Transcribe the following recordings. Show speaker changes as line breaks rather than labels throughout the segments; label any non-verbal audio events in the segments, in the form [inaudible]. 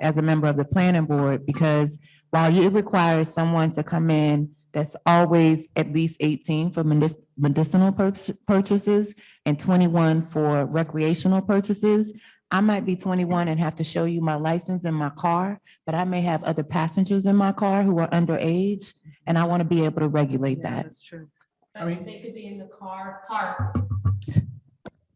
as a member of the planning board, because while it requires someone to come in that's always at least eighteen for medic- medicinal pur- purchases and twenty-one for recreational purchases, I might be twenty-one and have to show you my license in my car, but I may have other passengers in my car who are underage, and I want to be able to regulate
Yeah,
that.
That's true.
I
But
mean-
they could be in the car parked.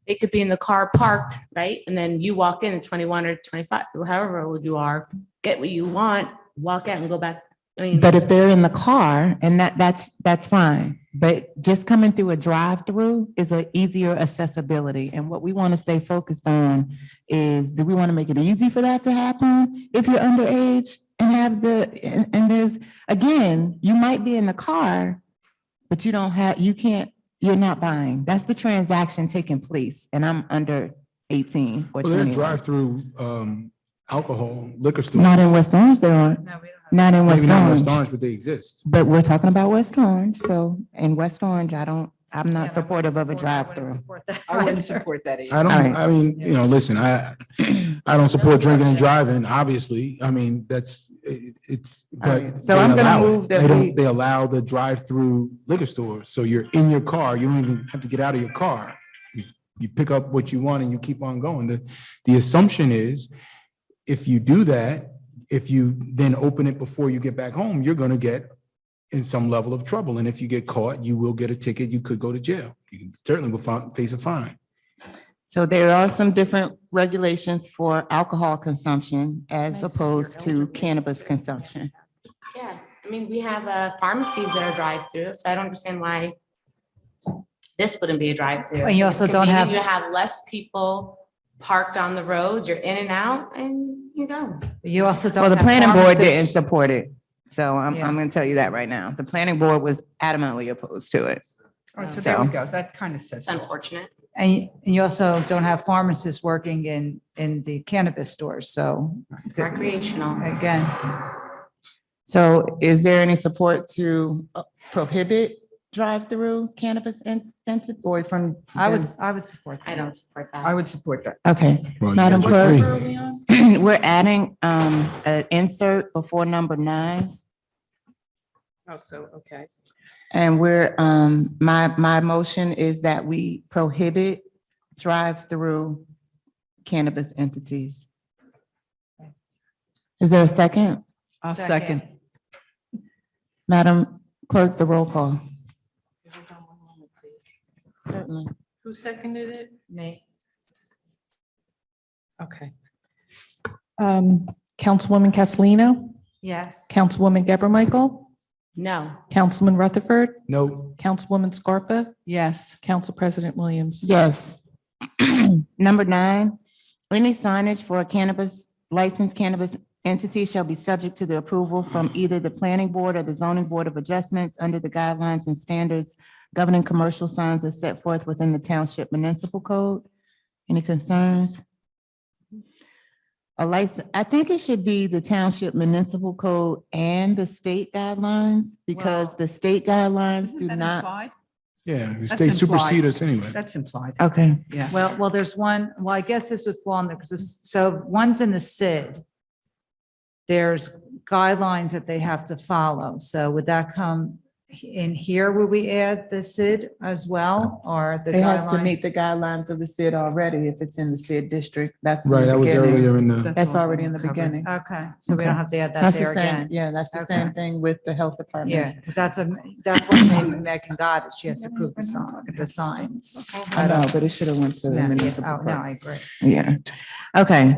They could be in the car parked, right? And then you walk in at twenty-one or twenty-five, or however old you are, get what you want, walk out and go back. I mean,
But if they're in the car and that, that's, that's fine. But just coming through a drive-through is a easier accessibility. And what we want to stay focused on is, do we want to make it easy for that to happen? If you're underage and have the, and, and there's, again, you might be in the car, but you don't have, you can't, you're not buying. That's the transaction taking place and I'm under eighteen or
Well, they're
twenty-one.
drive-through um, alcohol liquor stores.
Not in West Orange, there aren't.
No, we don't have.
Not in
Maybe
West
not in
Orange.
West Orange, but they exist.
But we're talking about West Orange, so in West Orange, I don't, I'm
yeah, I
not
wouldn't
supportive of a
support- I wouldn't
drive-through.
support that
I wouldn't
either.
support that either.
I don't,
Alright.
I mean, you know, listen, I, I don't support drinking and driving, obviously. I mean, that's, it- it's, but.
Alright, so
they
I'm gonna
allow it.
move that
They don't-
we-
They allow the drive-through liquor store. So you're in your car, you don't even have to get out of your car. You- You pick up what you want and you keep on going. The, the assumption is if you do that, if you then open it before you get back home, you're going to get in some level of trouble. And if you get caught, you will get a ticket. You could go to jail. You certainly will fi- face a fine.
So there are some different regulations for alcohol consumption as
Nice, you're
opposed to
eligible.
cannabis consumption.
Yeah, I mean, we have uh, pharmacies that are drive-through, so I don't understand why this wouldn't be a drive-through.
And you also don't have-
You have less people parked on the roads, you're in and out, and you go.
You also don't.
Well, the
have
planning board
pharmacists.
didn't support it, so I'm,
Yeah.
I'm gonna tell you that right now. The planning board was adamantly opposed to it.
All right, so there we
So-
go. That kind of says.
It's
it all.
unfortunate.
And you- and you also don't have pharmacists working in, in the cannabis stores, so. it's a good-
Recreational.
Again,
So is there any support to uh, prohibit drive-through cannabis in, in- or from?
I would, I would support
I
that.
don't support that.
I would support that.
Okay. [clears throat]
Well, you
Madam
got your
Clerk?
three.
We're adding um an insert before number nine.
Oh, so, okay.
And we're um, my my motion is that we prohibit drive-through cannabis entities. Is there a second?
I'll second.
Madam Clerk, the roll call.
Could you hold on one moment, please?
Certainly.
Who seconded it? Me. Okay.
Um, Councilwoman Castellino,
Yes.
Councilwoman Gabor Michael,
No.
Councilman Rutherford,
No,
Councilwoman Scarpa,
Yes.
Council President Williams.
Yes. [clears throat] Number nine, any signage for a cannabis, licensed cannabis entity shall be subject to the approval from either the planning board or the zoning board of adjustments under the guidelines and standards governing commercial signs as set forth within the township municipal code. Any concerns? A license, I think it should be the township municipal code and the state guidelines because
Well-
the state guidelines do
Isn't that
not.
implied?
yeah, the
That's
state supersede
implied.
us anyway.
That's implied.
Okay.
Yeah.
Well, well, there's one, well, I guess this would fall in there, because, so one's in the SID. There's guidelines that they have to follow, so would that come in here, would we add the SID as well, or the
It has to meet
guidelines?
the guidelines of the CID already if it's in the CID district. That's. in the
Right, that was
beginning.
earlier in the,
That's already in the beginning.
Okay, so we
Okay.
don't have to add that
That's
there
the same,
again.
yeah, that's the
Okay.
same thing with the health
Yeah,
department.
because that's what, that's what
[coughs]
maybe Megan got, is she has to prove the sign, the signs.
I know, but it should have went to the
Yeah, yeah.
municipal
Oh, no,
court.
I agree.
Yeah. Okay.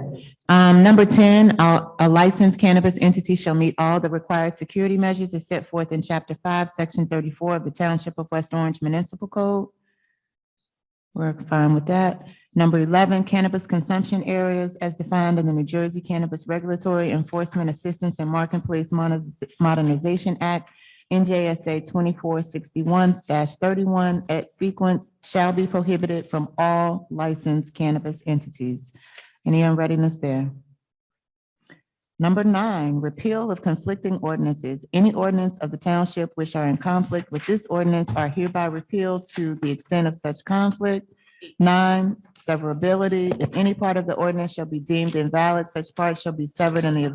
Um, number ten, a a licensed cannabis entity shall meet all the required security measures as set forth in chapter five, section thirty-four of the Township of West Orange Municipal Code. We're fine with that. Number eleven, cannabis consumption areas as defined in the New Jersey Cannabis Regulatory Enforcement Assistance and Marketplace Moderniz- Modernization Act, NJSA twenty-four sixty-one thirty-one at sequence shall be prohibited from all licensed cannabis entities. Any unreadiness there? Number nine, repeal of conflicting ordinances. Any ordinance of the township which are in conflict with this ordinance are hereby repealed to the extent of such conflict. Nine, severability. If any part of the ordinance shall be deemed invalid, such part shall be severed in the event